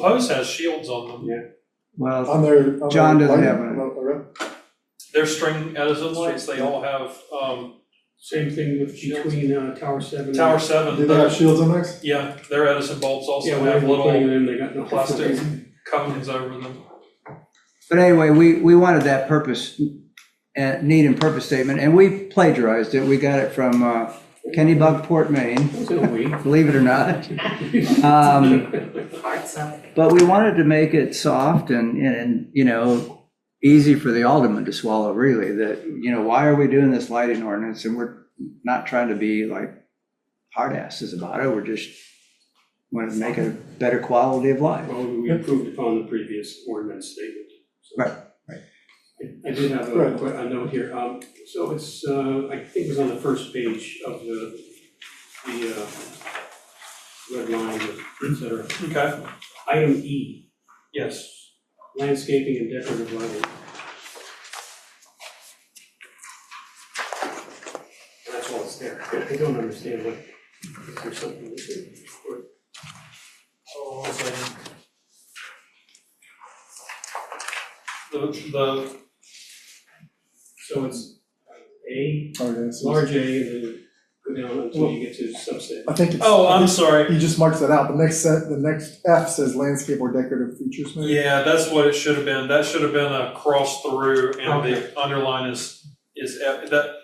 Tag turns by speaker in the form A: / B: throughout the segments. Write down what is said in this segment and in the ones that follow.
A: Hose has shields on them.
B: Well,
C: On their. on
B: John
C: their
B: doesn't
C: light-
B: have one.
C: on their-
A: They're string Edison lights, they all have, um,
D: Same thing with between uh, Tower Seven. and-
A: Tower
C: Do
A: Seven,
C: they have shields on theirs?
A: yeah, their Edison bulbs
D: Yeah,
A: also
D: when I
A: have
D: was putting
A: little
D: it in, they got no.
A: plastic cones over them.
B: but anyway, we, we wanted that purpose, uh, need and purpose statement, and we plagiarized it. We got it from, uh, Kenny Bunkport, Maine,
D: It was in a week.
B: believe it or not. Um,
E: parts of it.
B: But we wanted to make it soft and, and, you know, easy for the alderman to swallow, really, that, you know, why are we doing this lighting ordinance? And we're not trying to be like hard asses about it, we're just want to make a better quality of life.
D: Well, we improved upon the previous ordinance statement. so.
B: Right, right.
D: I- I did have a,
C: Right.
D: que- a note here, um, so it's, uh, I think it was on the first page of the, the, uh, red line, et cetera.
A: Okay,
D: Item E,
A: yes,
D: landscaping and decorative lighting. And That's all it's there, I don't understand what, is there something missing? Or-
A: the, the,
D: So it's uh, A,
C: Oh, yeah, so it's-
D: large A, and then go down until you get to subset.
C: I think it's.
A: oh, I'm sorry,
C: He just marks that out. The next set, the next F says landscape or decorative features. maybe?
A: yeah, that's what it should have been, that should have been a cross through, and the underline is, is, F- that,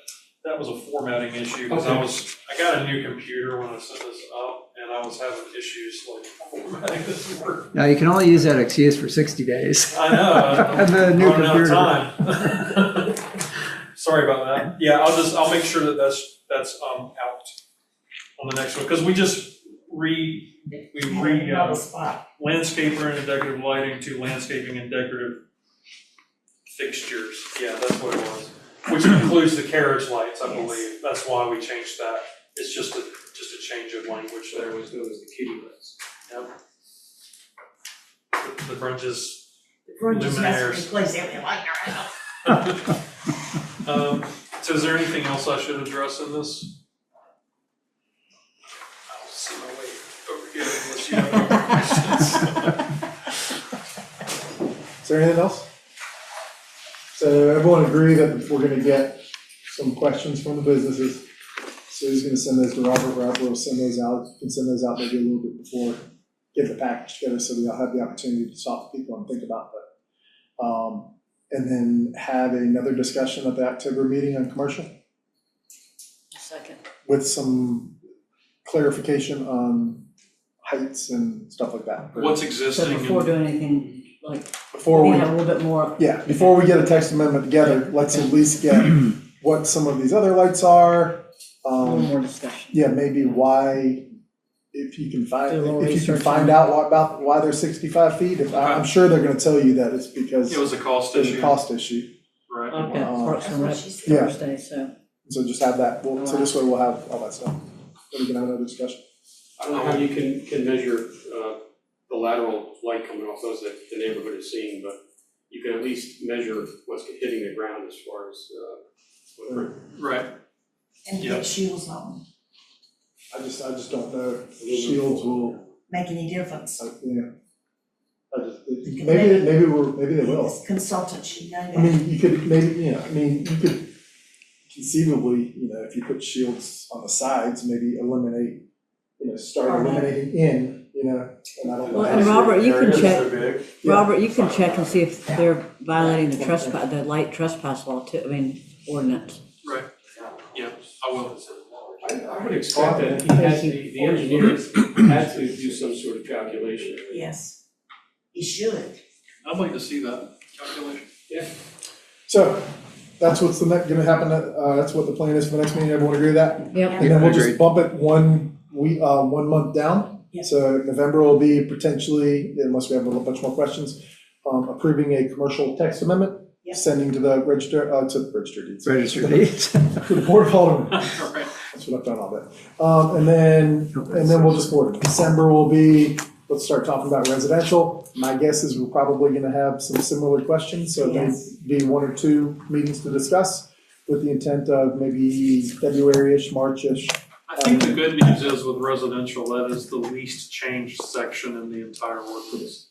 A: that was a formatting issue, because I
D: Okay.
A: was, I got a new computer when I set this up, and I was having issues like formatting this word.
B: Now, you can only use that excuse for 60 days.
A: I know.
B: And the
A: I'm
B: new
A: running out of
B: computer.
A: time. Sorry about that. Yeah, I'll just, I'll make sure that that's, that's, um, out on the next one, because we just re, we re,
E: Another
A: uh,
E: spot.
A: landscaper and decorative lighting to landscaping and decorative fixtures. Yeah, that's what it was, which includes the carriage lights, I
E: Yes.
A: believe. That's why we changed that. It's just a, just a change of language
D: There
A: there.
D: was, there was the kitty lights.
A: The- The branches
E: We're just
A: Luminaires.
E: messing with place every light around.
A: Um, so is there anything else I should address in this? I don't see my way over here unless you have any more questions.
C: Is there anything else? So everyone agree that we're gonna get some questions from the businesses. So he's gonna send those to Robert, Robert will send those out, You can send those out maybe a little bit before, get the package together, so we all have the opportunity to talk to people and think about that. Um, and then have another discussion at the October meeting on commercial
E: Second.
C: with some clarification on heights and stuff like that.
A: What's
E: So
A: existing
E: before
A: and,
E: doing anything, like,
C: Before
E: we
C: we
E: have a little bit more,
C: Yeah, before we get a text amendment together, let's at least get what some of these other lights are.
E: a little
C: Um,
E: more discussion.
C: yeah, maybe why, if you can find,
E: Do a little
C: if you can
E: research
C: find
E: on-
C: out why- about why they're sixty-five feet. If, I- I'm sure they're gonna tell you that it's because
A: it was a cost
C: there's a
A: issue,
C: cost issue.
A: right?
E: I've got
C: Uh,
E: Parks and Rec
C: Yeah.
E: Thursday, so.
C: So just have that, we'll- so this way we'll have all that stuff. Then we can have another discussion.
D: I don't know how you can, can measure, uh, the lateral light coming off those that the neighborhood is seeing, but you can at least measure what's hitting the ground as far as, uh, what-
A: Right,
E: And um,
A: Yeah.
E: get shields on,
C: I just, I just don't know. Shields will,
E: make any difference.
C: uh, you know. I just,
E: can
C: maybe, maybe we're, maybe they will.
E: As consultants, you know
C: I
E: that.
C: mean, you could maybe, you know, I mean, you could conceivably, you know, if you put shields on the sides, maybe eliminate, you know, start
E: Or not.
C: eliminating in, you know, and I don't know.
F: Well,
C: how
F: and
C: to-
F: Robert, you can
G: Areas
F: check,
G: so big.
C: Yeah.
F: Robert, you can check and see if they're violating the trespass, the light trespass law too, I mean, ordinance.
A: yeah, I will.
D: I, I would expect that he has, the, the engineers had to do some sort of calculation.
E: Yes. You should.
A: I'd like to see that calculation.
C: So, that's what's the next, gonna happen, uh, that's what the plan is for the next meeting, everyone agree with that?
F: Yep,
C: And then we'll just
B: Agreed.
C: bump it one, we, uh, one month down.
E: Yeah.
C: So November will be potentially, unless we have a bunch more questions, um, approving a commercial text amendment,
E: Yeah.
C: sending to the register, uh, to the register deeds.
B: Register deeds.
C: To the board of aldermen.
A: All right.
C: That's what I've done all day. Um, and then, and then we'll just board it. December will be, let's start talking about residential. My guess is we're probably gonna have some similar questions, so there'll
E: Yes.
C: be one or two meetings to discuss with the intent of maybe February-ish, March-ish.
A: I think the good news is with residential, that is the least changed section in the entire ordinance.